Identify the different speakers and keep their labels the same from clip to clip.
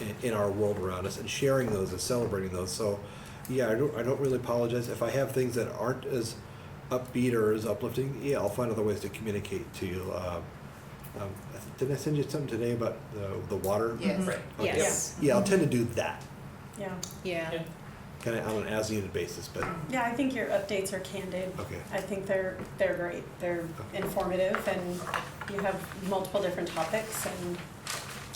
Speaker 1: in, in our world around us and sharing those and celebrating those. So, yeah, I don't, I don't really apologize. If I have things that aren't as upbeat or as uplifting, yeah, I'll find other ways to communicate to you. Uh, um, I th- did I send you something today about the, the water?
Speaker 2: Yes.
Speaker 3: Right.
Speaker 1: Okay.
Speaker 4: Yes.
Speaker 1: Yeah, I'll tend to do that
Speaker 4: Yeah,
Speaker 3: Yeah.
Speaker 2: Yeah.
Speaker 1: kind of on an as needed basis, but
Speaker 4: yeah, I think your updates are candid.
Speaker 1: Okay.
Speaker 4: I think they're, they're great, they're informative, and you have multiple different topics, and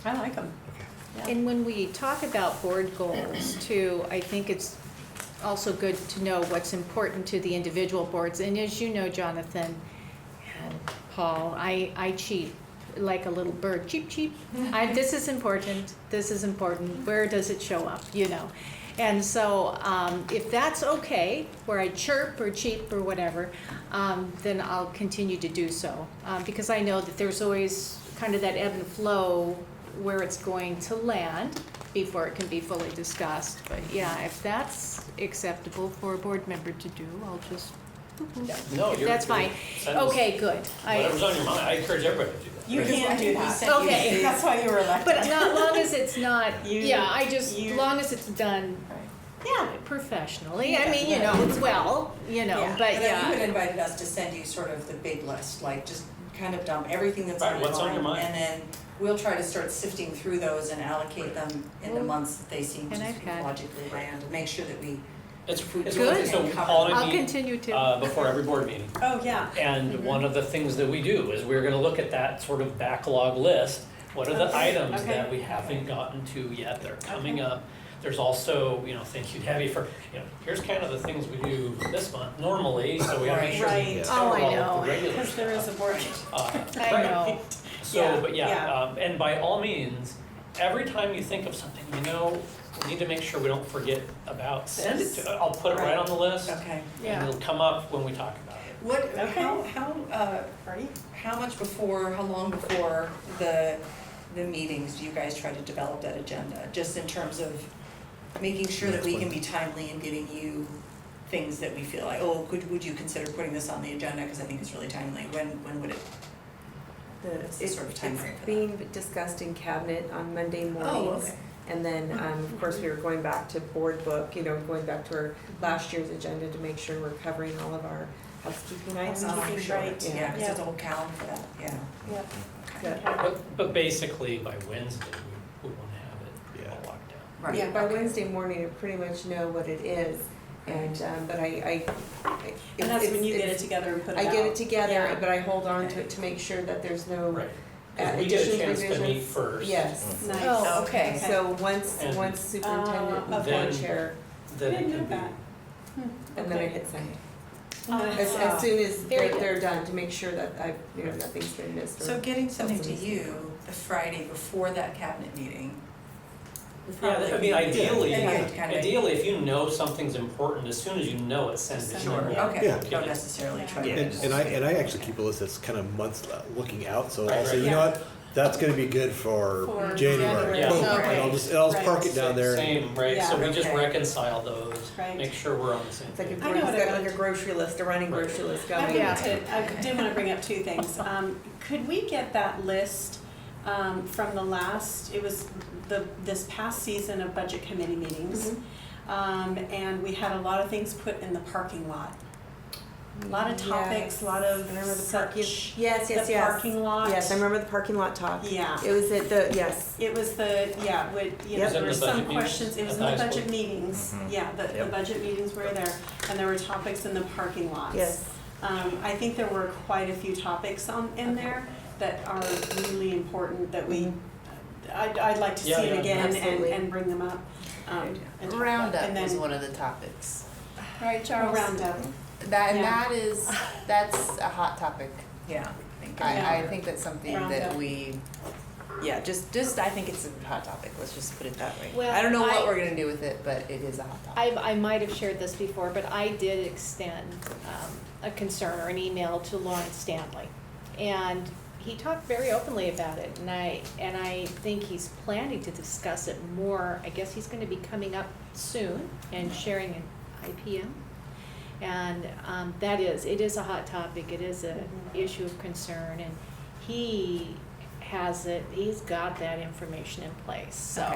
Speaker 4: I like them,
Speaker 1: okay.
Speaker 4: yeah.
Speaker 3: And when we talk about board goals too, I think it's also good to know what's important to the individual boards. And as you know, Jonathan and Paul, I, I cheat like a little bird, cheep, cheep. I, this is important, this is important, where does it show up, you know? And so, um, if that's okay, where I chirp or cheep or whatever, um, then I'll continue to do so. Uh, because I know that there's always kind of that ebb and flow where it's going to land before it can be fully discussed. But yeah, if that's acceptable for a board member to do, I'll just,
Speaker 2: No, you're.
Speaker 3: that's fine.
Speaker 2: send us
Speaker 3: Okay, good.
Speaker 2: Whatever's
Speaker 3: I,
Speaker 2: on your mind, I encourage everybody to do that.
Speaker 4: You
Speaker 2: Right.
Speaker 4: can do
Speaker 5: I
Speaker 4: that.
Speaker 5: sent you-
Speaker 3: Okay.
Speaker 5: That's why you were elected.
Speaker 3: but not long as it's not,
Speaker 4: You-
Speaker 3: yeah, I just,
Speaker 4: you-
Speaker 3: long as it's done
Speaker 4: Right.
Speaker 5: Yeah.
Speaker 3: professionally, I
Speaker 5: Yeah,
Speaker 3: mean, you
Speaker 5: yeah.
Speaker 3: know, well, you know,
Speaker 4: Yeah,
Speaker 3: but
Speaker 5: But then you had
Speaker 3: yeah.
Speaker 5: invited us to send you sort of the big list, like just kind of dump everything that's on
Speaker 2: Right,
Speaker 5: your
Speaker 2: what's on your
Speaker 5: mind, And
Speaker 2: mind?
Speaker 5: then we'll try to start sifting through those and allocate them in the
Speaker 3: Well,
Speaker 5: months that they seem to
Speaker 3: and I've
Speaker 5: sort
Speaker 3: had-
Speaker 5: of logically land, and make sure that we.
Speaker 2: It's, it's
Speaker 3: Good.
Speaker 2: one thing, so Paul and I
Speaker 3: I'll
Speaker 2: meet,
Speaker 3: continue Mm-hmm. to,
Speaker 2: uh, before every board meeting.
Speaker 4: Oh, yeah,
Speaker 2: And one of the things that we do is we're gonna look at that sort of backlog list. What are the
Speaker 4: Okay,
Speaker 2: items
Speaker 4: okay.
Speaker 2: that we haven't gotten to yet that are coming up? There's also, you know, thank you Debbie for, you know, here's kind of the things we do this month normally, so we gotta make sure we
Speaker 4: Right. Right.
Speaker 2: cover all
Speaker 3: Oh, I
Speaker 2: of
Speaker 3: know.
Speaker 2: the regular
Speaker 4: because there is a
Speaker 2: stuff.
Speaker 4: board.
Speaker 2: Uh,
Speaker 3: I
Speaker 2: right.
Speaker 3: know,
Speaker 2: So, but
Speaker 4: Yeah,
Speaker 2: yeah,
Speaker 4: yeah.
Speaker 2: um, and by all means, every time you think of something, you know, we need to make sure we don't forget about, send it
Speaker 5: This.
Speaker 2: to, I'll put it right on the list.
Speaker 5: Okay.
Speaker 2: And
Speaker 3: yeah.
Speaker 2: it'll come up when we talk about it.
Speaker 5: What,
Speaker 4: Okay.
Speaker 5: how, how, uh,
Speaker 4: Right.
Speaker 5: how much before, how long before the, the meetings do you guys try to develop that agenda? Just in terms of making sure that we can be timely and giving you things that we feel like, oh, could, would you consider putting this on the agenda? Because I think it's really timely. When, when would it? What's the
Speaker 6: It's-
Speaker 5: sort of timeframe for that?
Speaker 6: It's being discussed in cabinet on Monday
Speaker 5: Oh,
Speaker 6: mornings.
Speaker 5: okay.
Speaker 6: And then, um, of course, we were going back to board book, you know, going back to our last year's agenda to make sure we're covering all of our housekeeping items.
Speaker 5: Oh,
Speaker 4: Housekeeping,
Speaker 5: sure.
Speaker 4: right.
Speaker 5: Yeah, because there's a
Speaker 4: Yeah.
Speaker 5: whole calendar for that, yeah.
Speaker 4: Yep.
Speaker 6: Yeah.
Speaker 2: But, but basically, by Wednesday, we, we wanna have it all
Speaker 1: Yeah.
Speaker 2: locked down.
Speaker 5: Right.
Speaker 6: Yeah, by
Speaker 5: okay.
Speaker 6: Wednesday morning, I pretty much know what it is, and, um, but I, I. I-
Speaker 4: And that's when
Speaker 6: it's-
Speaker 4: you get it
Speaker 6: it's-
Speaker 4: together and put it
Speaker 6: I
Speaker 4: out.
Speaker 6: get it together,
Speaker 4: Yeah.
Speaker 6: but I hold on to it to make sure that there's no
Speaker 2: Right,
Speaker 6: uh,
Speaker 2: cause we get a
Speaker 6: additions,
Speaker 2: chance to meet
Speaker 6: revisions.
Speaker 2: first.
Speaker 6: Yes.
Speaker 4: Nice.
Speaker 3: Oh, okay.
Speaker 6: So once,
Speaker 2: And-
Speaker 6: once
Speaker 4: Ah,
Speaker 6: superintendent and
Speaker 2: Then-
Speaker 6: board chair,
Speaker 2: Then it
Speaker 4: Didn't
Speaker 2: can
Speaker 4: know
Speaker 2: be,
Speaker 4: that.
Speaker 6: and then I hit send.
Speaker 4: Uh,
Speaker 6: As, as soon as
Speaker 3: Very
Speaker 6: they're,
Speaker 3: good.
Speaker 6: they're done, to make sure that I, you know, nothing's been missed
Speaker 5: So
Speaker 6: or,
Speaker 5: getting something to you the Friday before that cabinet meeting. would
Speaker 2: yeah, I
Speaker 5: probably
Speaker 2: mean,
Speaker 5: be-
Speaker 2: ideally,
Speaker 5: Yeah, kind of-
Speaker 2: ideally, if you know something's important, as soon as you know it, send it.
Speaker 5: Sure,
Speaker 2: Yeah.
Speaker 1: Yeah.
Speaker 5: okay, don't necessarily try to.
Speaker 1: And, and I, and I actually keep a list that's kind of months uh, looking out, so
Speaker 2: Right,
Speaker 1: I'll say,
Speaker 2: right.
Speaker 1: you know what, that's gonna be good for
Speaker 4: For
Speaker 1: January.
Speaker 4: January.
Speaker 2: Yeah.
Speaker 1: Boom,
Speaker 4: Okay.
Speaker 1: and I'll just, and I'll just
Speaker 4: Right.
Speaker 1: park it down there. and-
Speaker 2: Same, right, so
Speaker 4: Yeah.
Speaker 2: we just
Speaker 5: Okay.
Speaker 2: reconcile those,
Speaker 4: Right.
Speaker 2: make sure we're on the same
Speaker 6: it's like a,
Speaker 2: page.
Speaker 6: he's
Speaker 4: I know what I
Speaker 6: got like
Speaker 4: want.
Speaker 6: a grocery list, a running
Speaker 2: Right.
Speaker 6: grocery list
Speaker 4: I
Speaker 6: going.
Speaker 4: wanted to, I did want to bring up two things. Um, could we get that list, um, from the last, it was the, this past season of budget committee meetings?
Speaker 6: Mm-hmm.
Speaker 4: Um, and we had a lot of things put in the parking lot. A lot of topics, a lot of
Speaker 6: I remember the park-
Speaker 4: such,
Speaker 6: Yes,
Speaker 4: the
Speaker 6: yes, yes.
Speaker 4: parking lot.
Speaker 6: Yes, I remember the parking lot talk.
Speaker 4: Yeah.
Speaker 6: It was at the, yes,
Speaker 4: It was the, yeah, would, you know,
Speaker 6: Yep. Mm-hmm.
Speaker 4: there were
Speaker 2: Was that in the budget
Speaker 4: some
Speaker 2: meetings
Speaker 4: questions, it was
Speaker 2: at
Speaker 4: in the
Speaker 2: the high
Speaker 4: budget
Speaker 2: school?
Speaker 4: meetings, yeah, the, the
Speaker 2: Yep.
Speaker 4: budget meetings were there, and there were topics in the parking lots.
Speaker 6: yes.
Speaker 4: Um, I think there were quite a few topics on, in there that are really important that we, I'd, I'd like to see
Speaker 2: Yeah,
Speaker 4: it
Speaker 2: yeah,
Speaker 4: again and,
Speaker 6: Mm-hmm. absolutely.
Speaker 4: and bring them up. um, and talk about- and
Speaker 7: Roundup
Speaker 4: then-
Speaker 7: was one of the topics. Right,
Speaker 4: Oh, roundup,
Speaker 7: That, and
Speaker 4: Yeah.
Speaker 7: that is, that's a hot topic.
Speaker 5: Yeah, I think.
Speaker 7: I, I
Speaker 4: Yeah.
Speaker 7: think that's something
Speaker 4: Roundup.
Speaker 7: that we, yeah, just, just, I think it's a hot topic, let's just put it that way.
Speaker 3: Well,
Speaker 7: I don't know
Speaker 3: I-
Speaker 7: what we're gonna do with it, but it is a hot topic.
Speaker 3: I, I might have shared this before, but I did extend um, a concern or an email to Lawrence Stanley. And he talked very openly about it, and I, and I think he's planning to discuss it more. I guess he's gonna be coming up soon and sharing an IPM. And um, that is, it is a hot topic, it is an
Speaker 4: Mhm.
Speaker 3: issue of concern, and he has it, he's got that information in place, so.